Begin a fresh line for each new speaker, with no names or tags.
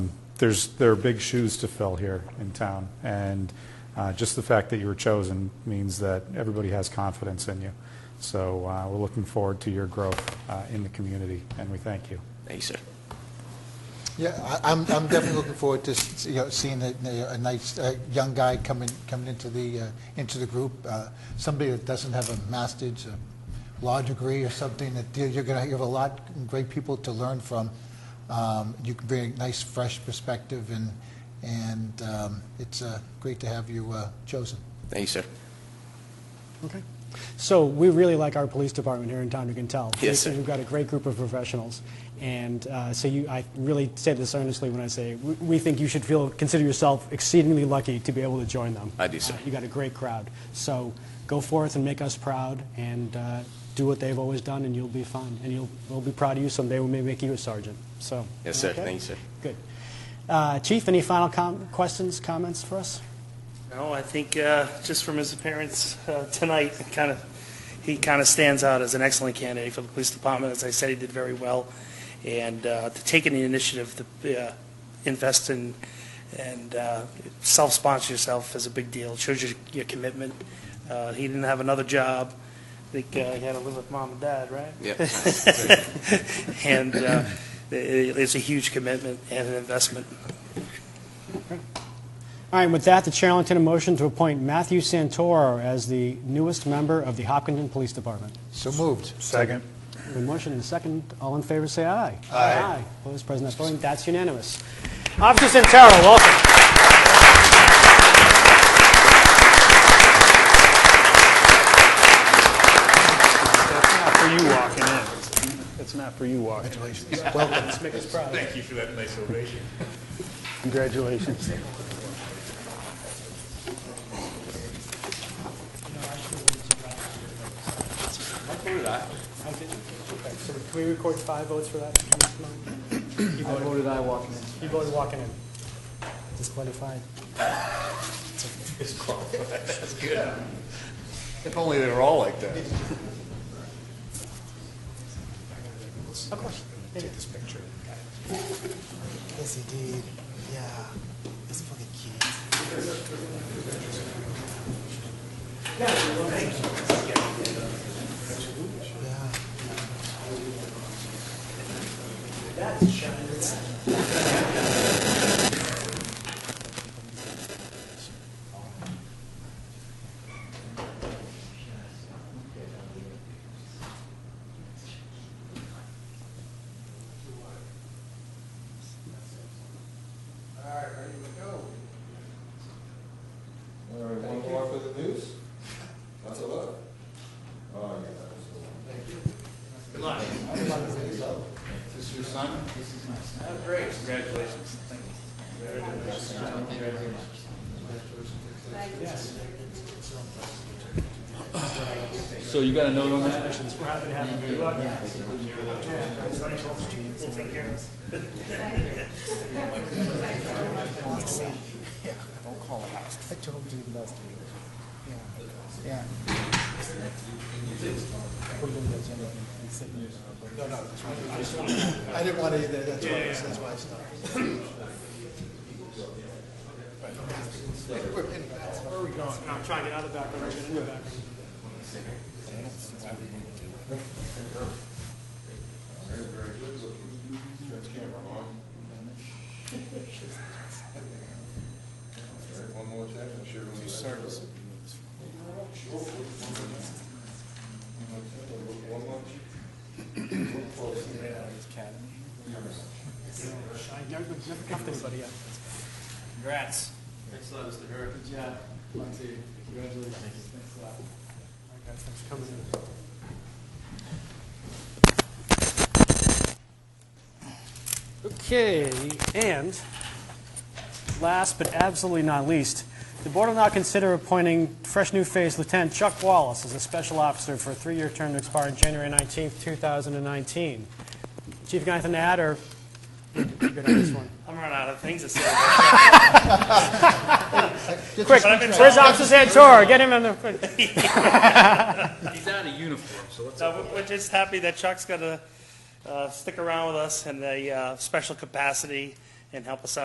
there's, there are big shoes to fill here in town, and uh, just the fact that you were chosen means that everybody has confidence in you. So uh, we're looking forward to your growth uh, in the community, and we thank you.
Thank you, sir.
Yeah, I- I'm, I'm definitely looking forward to, s- you know, seeing a, a nice, uh young guy coming, coming into the, uh, into the group. Uh, Somebody that doesn't have a master's, a law degree or something, that you're- you're gonna, you have a lot, of great people to learn from. Um, You can bring a nice, fresh perspective and, and um, it's uh, great to have you uh, chosen.
Thank you, sir.
Okay. So we really like our police department here in town, you can tell.
Yes, sir.
We've got a great group of professionals. And uh, so you, I really say this earnestly when I say, we- we think you should feel, consider yourself exceedingly lucky to be able to join them.
I do, sir.
Uh, You got a great crowd. So go forth and make us proud and uh, do what they've always done and you'll be fine. And you'll, we'll be proud of you someday. We may make you a sergeant, so.
Yes, sir.
okay?
Thank you, sir.
Good. Uh, Chief, any final com- questions, comments for us?
No, I think uh, just from his appearance uh, tonight, kind of, he kind of stands out as an excellent candidate for the police department. As I said, he did very well, and uh, to take any initiative to uh, invest in and uh, self-sponsor yourself is a big deal. It shows your, your commitment. Uh, he didn't have another job. I think uh, he had to live with mom and dad, right?
Yeah.
And uh, it, it's a huge commitment and an investment.
All right, with that, the chair will entertain a motion to appoint Matthew Santoro as the newest member of the Hopkinton Police Department.
So moved.
Second.
The motion and second, all in favor, say aye. Aye. Opposed, present not voting, that's unanimous. Officer Santoro, welcome.
That's not for you walking in. That's not for you walking.
Congratulations. Welcome.
Thank you for that nice ovation.
Congratulations.
Can we record five votes for that? You voted aye walking in. You voted walking in. Disqualified.
If only they were all like that.
Of course.
Take this picture. Yes, indeed. Yeah. It's fucking cute.
All right, one more for the news? That's a lot. Oh, yeah, that was a lot. Thank you. Good luck. This is your son? This is my son.
So you got a note on that?
Don't call it house. I told you the last week. Yeah. Yeah. Put it in the agenda and sit in your-
No, no, that's what I- I didn't want to either, that's why, that's why I stopped. Where are we going?
I'm trying to get out of the background, I'm in the background.
Turn the camera on. All right, one more time, I'm sure we'll need service. One more.
I never, never cuffed anybody yet.
Congrats.
All right, guys, thanks for coming in. Okay, and last but absolutely not least, the board will now consider appointing fresh new face Lieutenant Chuck Wallace as a special officer for a three-year term to expire on January 19th, 2019. Chief, you got anything to add, or you good on this one?
I'm running out of things to say.
Quick, where's Officer Santoro? Get him in the, quick.
He's out of uniform, so let's.
So we're- we're just happy that Chuck's going to stick around with us in a uh, special uh, capacity and help us out.